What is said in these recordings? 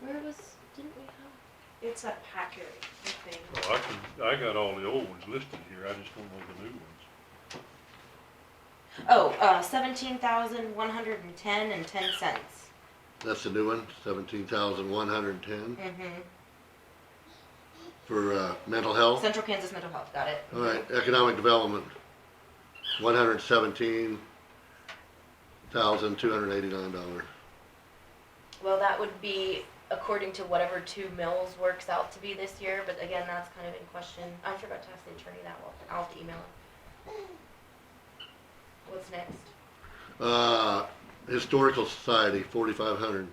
Where was, didn't we have? It's a packet thing. Well, Oh, I can, I got all the old ones listed here, I just don't know the new ones. Oh, uh, seventeen thousand one hundred and ten and ten cents. That's the new one, seventeen thousand one hundred and ten Mm-hmm. for, uh, mental health. Oh. Central Kansas Mental Health, got it. All right, economic development, one hundred seventeen thousand two hundred eighty-nine dollars. Well, that would be according to whatever two mills works out to be this year, but again, that's kind of in question. I forgot to ask the attorney that, well, I'll have to email him. What's next? Uh, historical society, forty-five hundred.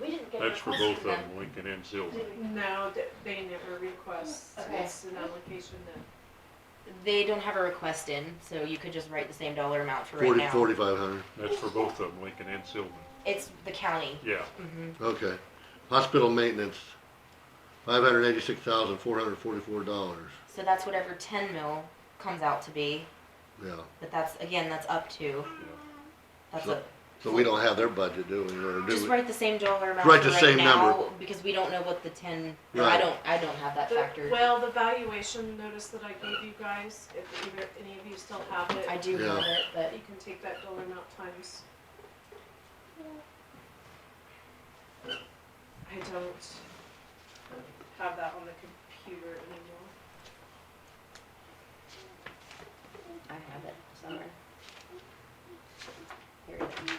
We didn't get a That's for request both of from them. them, Lincoln and Sylvan. No, th- they never request, Okay. it's an application that, They don't have a request in, so you could just write the same dollar amount for right Forty, now. forty-five hundred, That's for both of them, Lincoln and Sylvan. It's the county. Yeah, Mm-hmm. okay. Hospital maintenance, five hundred eighty-six thousand four hundred forty-four dollars, So that's whatever ten mil comes out to be, yeah. but that's, again, that's up to, yeah. that's So- a, So we don't have their budget, do we, or do just we? write the same dollar amount Write the right same now, number. because we don't know what the ten, or I Right. don't, I don't have that The- factored. well, the valuation notice that I gave you guys, if either, any of you still have I it, do have Yeah. it, but you can take that dollar amount times. I don't have that on the computer anymore. I have it somewhere. Here it is.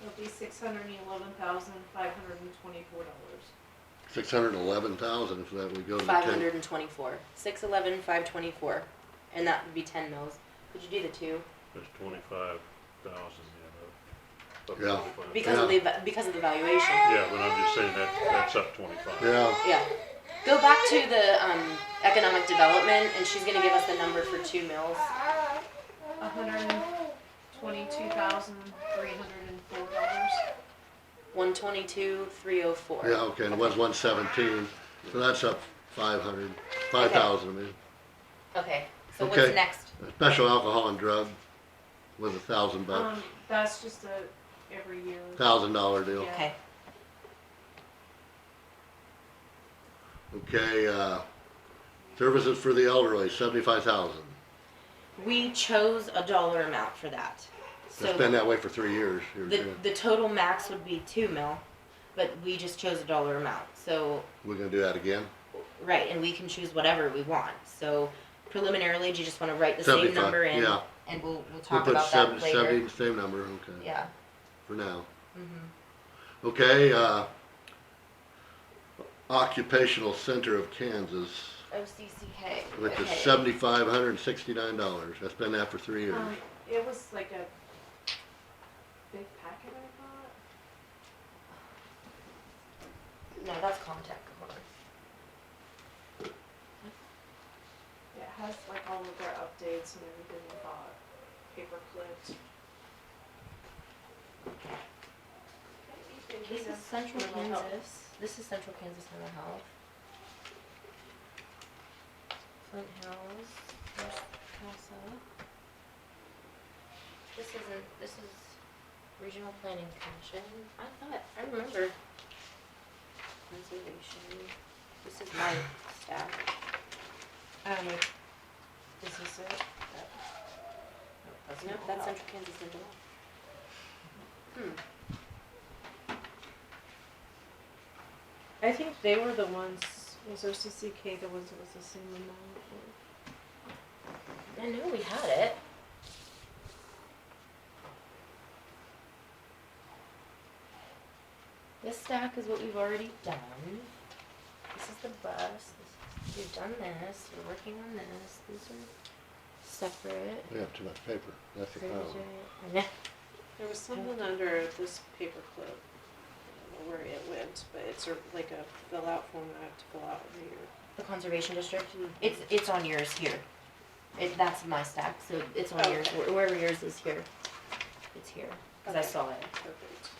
It'll be six hundred and eleven thousand, five hundred and twenty-four dollars. Six hundred eleven thousand if that would go to the Five ten. hundred and twenty-four, six eleven, five twenty-four, and that would be ten mils. Could you do the two? That's twenty-five thousand, you know. up Yeah. 25. Because of the, Yeah. va- because of the valuation. Yeah, but I'm just saying that, that's up twenty-five. Yeah, Yeah. Go back to the, um, economic development, and she's gonna give us the number for two mills. A hundred and twenty-two thousand, three hundred and four dollars. One twenty-two, three oh four. yeah, okay, and it was one seventeen, so that's up five hundred, five thousand, I mean. Okay, so Okay. what's next? Special alcohol and drug was a thousand bucks, Um, that's just a every year. Um, thousand dollar deal. Yeah. Okay, Okay, uh, services for the elderly, seventy-five thousand. we chose a dollar amount for that. It's So been that way for three years. here, the, yeah. the total max would be two mil, but we just chose a dollar amount, so We're gonna do that again? Right, and we can choose whatever we want. So preliminarily, do you just want to write the same 75, number in? yeah. And we'll, we'll We'll talk put about seven- that later. seventy, same number, okay, Yeah. for now. Mhm. Okay, uh, Occupational Center of Kansas, OCCK. which is Okay. seventy-five hundred and sixty-nine dollars. That's been that for three Um, years. it was like a big packet I bought. No, that's contact, come on. It has like all of their updates and everything I bought, paper clipped. This is Central Kansas. This is Central Kansas Mental Health. Flint Hills, West Casa. This isn't, this is Regional Planning Commission. I thought, I remember. Conservation. This is my staff. Um, is this it? Nope, that's Central Kansas Mental Health. I think they were the ones, was OCCK the ones that was the same amount? I know we had it. This stack is what we've already done. This is the bus. This is, we've done this. We're working on this. These are separate. We have too much paper, that's the problem. There was something under this paperclip, I don't know where it went, but it's a- like a fill out form that I have to fill out every year. The Conservation District. It's it's on yours here. It, that's my stack, so it's on yours. Okay. Wh- Wherever yours is here, it's here. Cause I Okay. saw it. Perfect.